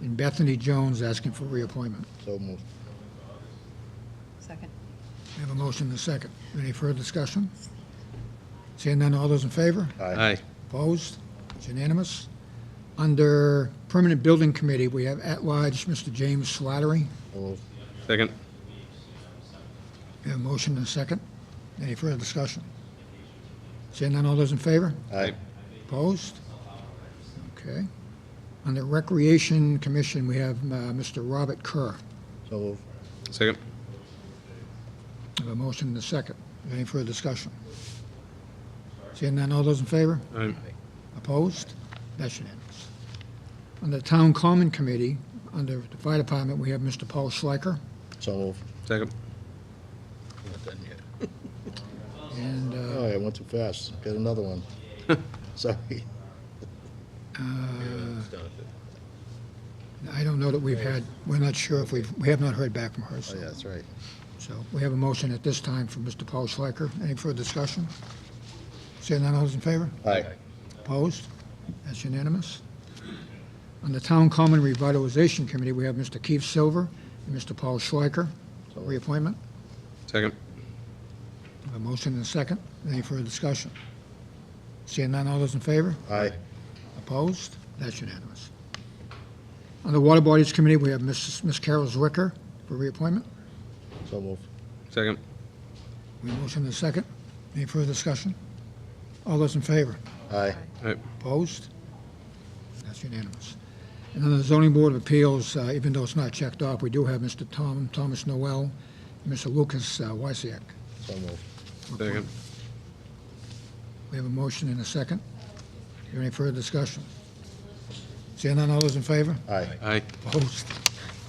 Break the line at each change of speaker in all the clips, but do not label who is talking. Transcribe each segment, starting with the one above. and Bethany Jones asking for reappointment.
So moved.
Second.
We have a motion and a second. Any further discussion? Seeing none, all those in favor?
Aye.
Opposed? It's unanimous. Under Permanent Building Committee, we have at-large Mr. James Slattery.
So moved.
Second.
We have a motion and a second. Any further discussion? Seeing none, all those in favor?
Aye.
Opposed? Okay. Under Recreation Commission, we have uh, Mr. Robert Kerr.
So moved.
Second.
We have a motion and a second. Any further discussion? Seeing none, all those in favor?
Aye.
Opposed? That's unanimous. On the Town Common Committee, under the Fire Department, we have Mr. Paul Schleicher,
So moved.
Second.
Not done yet.
and uh,
Oh, I went too fast. Got another one. Sorry.
I don't know that we've had, we're not sure if we've, we have not heard back from her,
Oh, yeah,
so.
that's right.
So we have a motion at this time for Mr. Paul Schleicher. Any further discussion? Seeing none, all those in favor?
Aye.
Opposed? That's unanimous. On the Town Common Revitalization Committee, we have Mr. Keith Silver and Mr. Paul Schleicher, reappointment.
Second.
A motion and a second. Any further discussion? Seeing none, all those in favor?
Aye.
Opposed? That's unanimous. On the Water Bodies Committee, we have Ms. Ms. Carol Zwicker for reappointment.
So moved.
Second.
We have a motion and a second. Any further discussion? All those in favor?
Aye.
Aye.
Opposed? That's unanimous. And on the Zoning Board of Appeals, uh, even though it's not checked off, we do have Mr. Tom, Thomas Noel, and Mr. Lucas uh, Wysiak.
So moved.
Second.
We have a motion and a second. Is there any further discussion? Seeing none, all those in favor?
Aye.
Aye.
Opposed?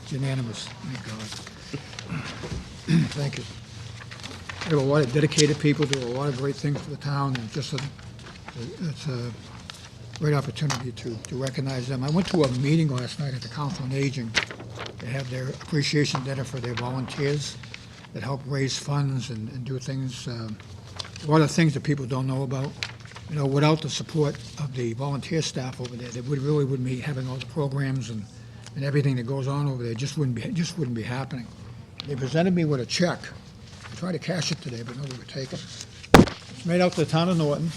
It's unanimous. Thank God. Thank you. We have a lot of dedicated people, do a lot of great things for the town, and just, a- it's a great opportunity to, to recognize them. I went to a meeting last night at the Council on Aging. They have their appreciation dinner for their volunteers that help raise funds and, and do things, um, a lot of things that people don't know about. You know, without the support of the volunteer staff over there, they would, really wouldn't be having all the programs and, and everything that goes on over there, just wouldn't be, just wouldn't be happening. They presented me with a check. I tried to cash it today, but nobody would take it. It's made out to the town of Norton,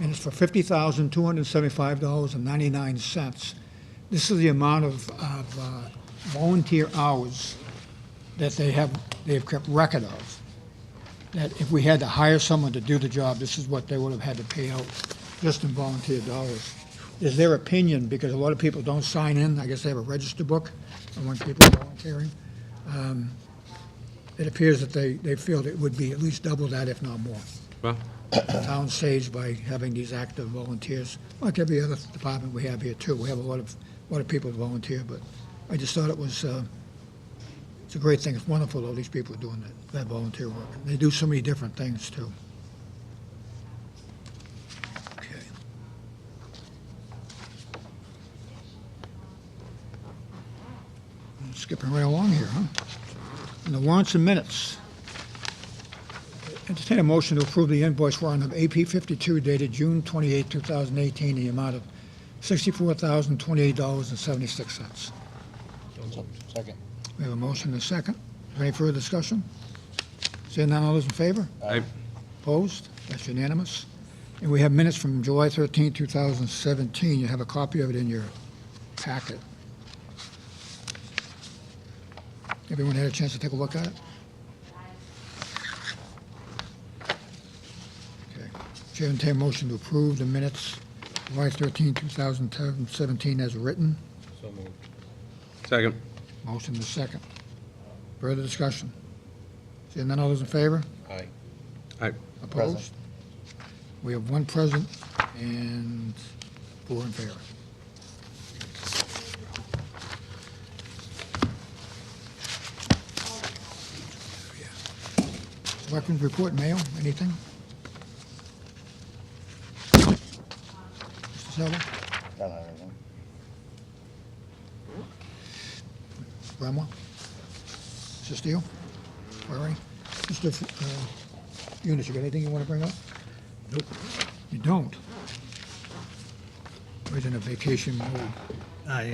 and it's for fifty thousand, two hundred and seventy-five dollars and ninety-nine cents. This is the amount of, of uh, volunteer hours that they have, they've kept record of. That if we had to hire someone to do the job, this is what they would have had to pay out, just in volunteer dollars. Is their opinion, because a lot of people don't sign in, I guess they have a register book, and when people are volunteering, um, it appears that they, they feel that it would be at least double that, if not more
Well,
town saved by having these active volunteers, like every other department we have here too. We have a lot of, a lot of people volunteer, but I just thought it was, uh, it's a great thing. It's wonderful all these people are doing that, that volunteer work. They do so many different things too. Okay. Skipping right along here, huh? And the warrants and minutes. Entertain a motion to approve the invoice warrant of AP 52 dated June 28, 2018, in the amount of $64,028.76.
Second.
We have a motion and a second. Is there any further discussion? Seeing none, all those in favor?
aye.
Opposed? That's unanimous. And we have minutes from July 13, 2017. You have a copy of it in your packet. Everyone had a chance to take a look at it? Okay. Chair entertain a motion to approve the minutes July 13, 2017 as written.
Second.
Motion is second. Further discussion? Seeing none, all those in favor?
Aye.
Aye.
Opposed? We have one present and four in favor. Selectmen's report, mail, anything? Mr. Silva,
Done everything.
Bramwell? Mr. Steele? Larry? Mr. F- uh, Yunus, you got anything you want to bring up? Nope. You don't? We're in a vacation mode.
I